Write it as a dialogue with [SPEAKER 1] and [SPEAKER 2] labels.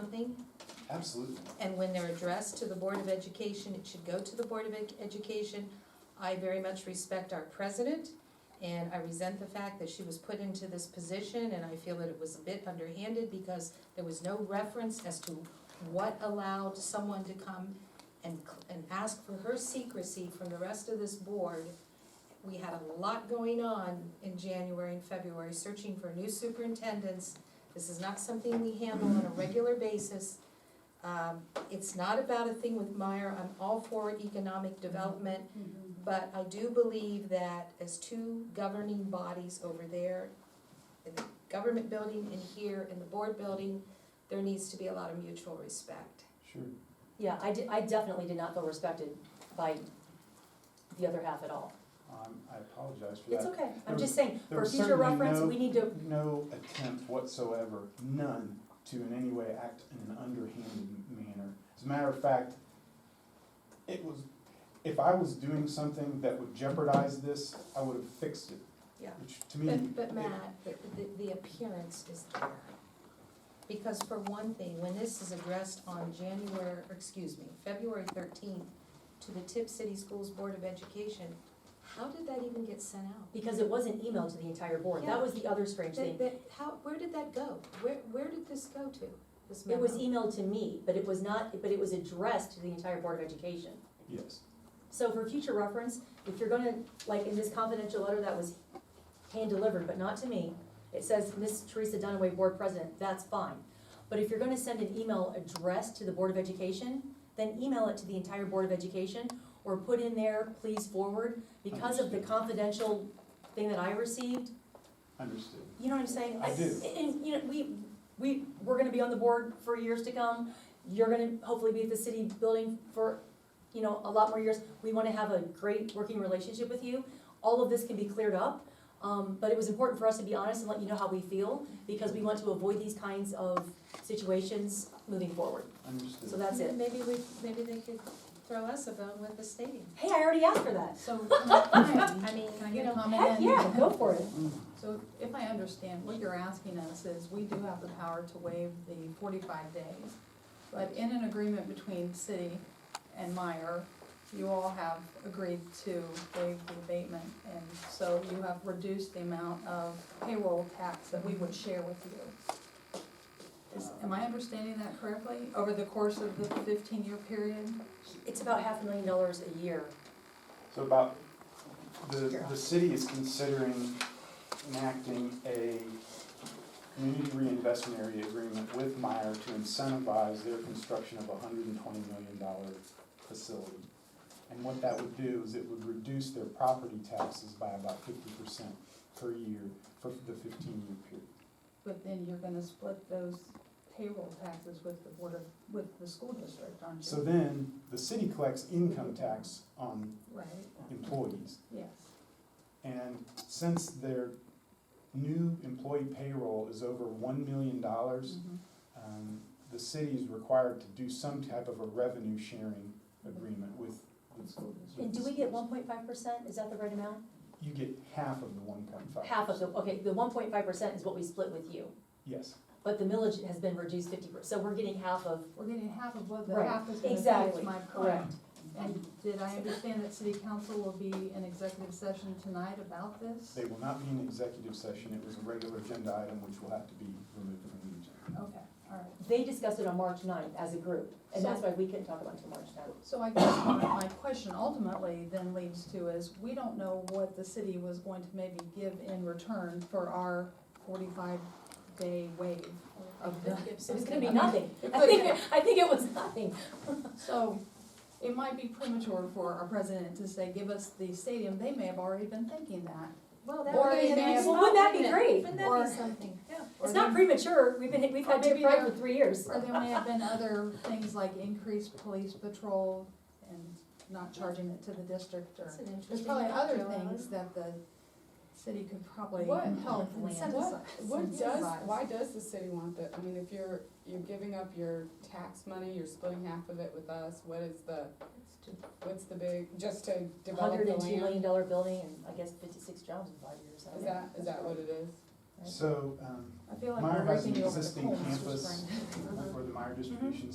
[SPEAKER 1] something,
[SPEAKER 2] Absolutely.
[SPEAKER 1] and when they're addressed to the Board of Education, it should go to the Board of Ed- Education. I very much respect our president, and I resent the fact that she was put into this position, and I feel that it was a bit underhanded because there was no reference as to what allowed someone to come and, cl- and ask for her secrecy from the rest of this board. We had a lot going on in January and February, searching for new superintendents. This is not something we handle on a regular basis. Um, it's not about a thing with Meyer, I'm all for economic development, but I do believe that as two governing bodies over there, in the government building and here in the board building, there needs to be a lot of mutual respect.
[SPEAKER 2] Sure.
[SPEAKER 3] Yeah, I did, I definitely did not feel respected by the other half at all.
[SPEAKER 2] Um, I apologize for that.
[SPEAKER 3] It's okay, I'm
[SPEAKER 2] There-
[SPEAKER 3] just saying,
[SPEAKER 2] there
[SPEAKER 3] for
[SPEAKER 2] was
[SPEAKER 3] future
[SPEAKER 2] certainly
[SPEAKER 3] reference,
[SPEAKER 2] no-
[SPEAKER 3] we need to,
[SPEAKER 2] No attempt whatsoever, none, to in any way act in an underhanded manner. As a matter of fact, it was, if I was doing something that would jeopardize this, I would have fixed it.
[SPEAKER 1] Yeah.
[SPEAKER 2] Which to me.
[SPEAKER 1] But, but
[SPEAKER 2] it-
[SPEAKER 1] Matt, the, the- the appearance is there. Because for one thing, when this is addressed on January, or excuse me, February thirteenth to the Tip City Schools Board of Education, how did that even get sent out?
[SPEAKER 3] because it was an email to the entire board,
[SPEAKER 1] Yeah.
[SPEAKER 3] that was the other strange
[SPEAKER 1] That,
[SPEAKER 3] thing.
[SPEAKER 1] that, how, where did that go? Where, where did this go to, this
[SPEAKER 3] It was
[SPEAKER 1] memo?
[SPEAKER 3] emailed to me, but it was not, but it was addressed to the entire Board of Education.
[SPEAKER 2] Yes.
[SPEAKER 3] So for future reference, if you're gonna, like in this confidential letter that was hand-delivered, but not to me, it says, Miss Teresa Dunaway, Board President, that's fine. But if you're gonna send an email addressed to the Board of Education, then email it to the entire Board of Education, or put in there, please forward, because of the confidential thing that I received,
[SPEAKER 2] Understood.
[SPEAKER 3] you know what I'm saying?
[SPEAKER 2] I do.
[SPEAKER 3] And, you know, we, we, we're gonna be on the board for years to come, you're gonna hopefully be at the city building for, you know, a lot more years. We wanna have a great working relationship with you, all of this can be cleared up, um, but it was important for us to be honest and let you know how we feel, because we want to avoid these kinds of situations moving forward,
[SPEAKER 2] Understood.
[SPEAKER 3] so that's it.
[SPEAKER 1] Maybe we, maybe they could throw us a bone with the stadium.
[SPEAKER 3] Hey, I already asked for that,
[SPEAKER 4] So,
[SPEAKER 1] I mean,
[SPEAKER 4] can I
[SPEAKER 1] you
[SPEAKER 4] get a
[SPEAKER 1] know,
[SPEAKER 4] comment in?
[SPEAKER 3] heck, yeah, go for it.
[SPEAKER 2] Mm.
[SPEAKER 4] So if I understand, what you're asking us is, we do have the power to waive the forty-five days. But in an agreement between city and Meyer, you all have agreed to waive the abatement. And so you have reduced the amount of payroll tax that we would share with you. Is, am I understanding that correctly? Over the course of the fifteen-year period?
[SPEAKER 3] It's about half a million dollars a year,
[SPEAKER 2] So about, the, the city is considering enacting a community reinvestment area agreement with Meyer to incentivize their construction of a hundred and twenty million dollar facility. And what that would do is it would reduce their property taxes by about fifty percent per year for the fifteen-year period.
[SPEAKER 4] But then you're gonna split those payroll taxes with the board of, with the school district, aren't you?
[SPEAKER 2] So then, the city collects income tax on
[SPEAKER 4] Right,
[SPEAKER 2] employees.
[SPEAKER 4] yes.
[SPEAKER 2] And since their new employee payroll is over one million dollars,
[SPEAKER 4] Mm-hmm.
[SPEAKER 2] um, the city is required to do some type of a revenue sharing agreement with. with- with
[SPEAKER 3] and do
[SPEAKER 2] the
[SPEAKER 3] we get
[SPEAKER 2] schools.
[SPEAKER 3] one point five percent, is that the right amount?
[SPEAKER 2] You get half of the one point five.
[SPEAKER 3] Half of the, okay, the one point five percent is what we split with you,
[SPEAKER 2] Yes,
[SPEAKER 3] but the millage has been reduced fifty percent, so we're getting half of,
[SPEAKER 4] We're getting half of what the
[SPEAKER 3] Right,
[SPEAKER 4] half is gonna be,
[SPEAKER 3] exactly,
[SPEAKER 4] is my point.
[SPEAKER 3] correct.
[SPEAKER 4] And did I understand that city council will be in executive session tonight about this?
[SPEAKER 2] they will not be in executive session, it was a regular agenda item which will have to be removed from the agenda.
[SPEAKER 4] Okay, all right.
[SPEAKER 3] they discussed it on March 9th as a group, and that's
[SPEAKER 4] So-
[SPEAKER 3] why we couldn't talk about it until March 9th.
[SPEAKER 4] So I guess my, my question ultimately then leads to is, we don't know what the city was going to maybe give in return for our forty-five day waive of the.
[SPEAKER 3] It was Oh, gonna be nothing,
[SPEAKER 4] It
[SPEAKER 3] I think,
[SPEAKER 4] could-
[SPEAKER 3] I think it was nothing.
[SPEAKER 4] So, it might be premature for our president to say, give us the stadium, they may have already been thinking that.
[SPEAKER 1] well, that
[SPEAKER 4] Or
[SPEAKER 1] would be
[SPEAKER 4] they
[SPEAKER 1] a
[SPEAKER 4] may
[SPEAKER 1] nice
[SPEAKER 4] have-
[SPEAKER 3] Well, wouldn't that be
[SPEAKER 1] thought,
[SPEAKER 3] great?
[SPEAKER 1] Wouldn't that
[SPEAKER 4] Or-
[SPEAKER 1] be something? Yeah.
[SPEAKER 3] It's not premature, we've been, we've had
[SPEAKER 4] Or
[SPEAKER 3] Tip
[SPEAKER 4] maybe
[SPEAKER 3] Pride
[SPEAKER 4] they're-
[SPEAKER 3] for three years.
[SPEAKER 4] Or there may have been other things like increased police patrol and not charging it to the district or.
[SPEAKER 1] That's an
[SPEAKER 4] There's
[SPEAKER 1] interesting
[SPEAKER 4] probably other
[SPEAKER 1] thought, Joellen.
[SPEAKER 4] things that the city could probably
[SPEAKER 5] What?
[SPEAKER 4] help
[SPEAKER 1] What-
[SPEAKER 4] land.
[SPEAKER 1] what-
[SPEAKER 5] What does,
[SPEAKER 4] Incentivize.
[SPEAKER 5] why does the city want that? I mean, if you're, you're giving up your tax money, you're splitting half of it with us, what is the, what's the big, just to develop
[SPEAKER 3] Hundred
[SPEAKER 5] the
[SPEAKER 3] and two million
[SPEAKER 5] land?
[SPEAKER 3] dollar building and I guess fifty-six jobs in five years, I don't
[SPEAKER 5] Is
[SPEAKER 3] know.
[SPEAKER 5] that, is that what it is?
[SPEAKER 2] So, um,
[SPEAKER 4] I feel like
[SPEAKER 2] Meyer
[SPEAKER 4] we're
[SPEAKER 2] has an
[SPEAKER 4] breaking you over the
[SPEAKER 2] existing
[SPEAKER 4] coals, which
[SPEAKER 2] campus
[SPEAKER 4] brings-
[SPEAKER 3] Mm-hmm.
[SPEAKER 2] for the Meyer Distribution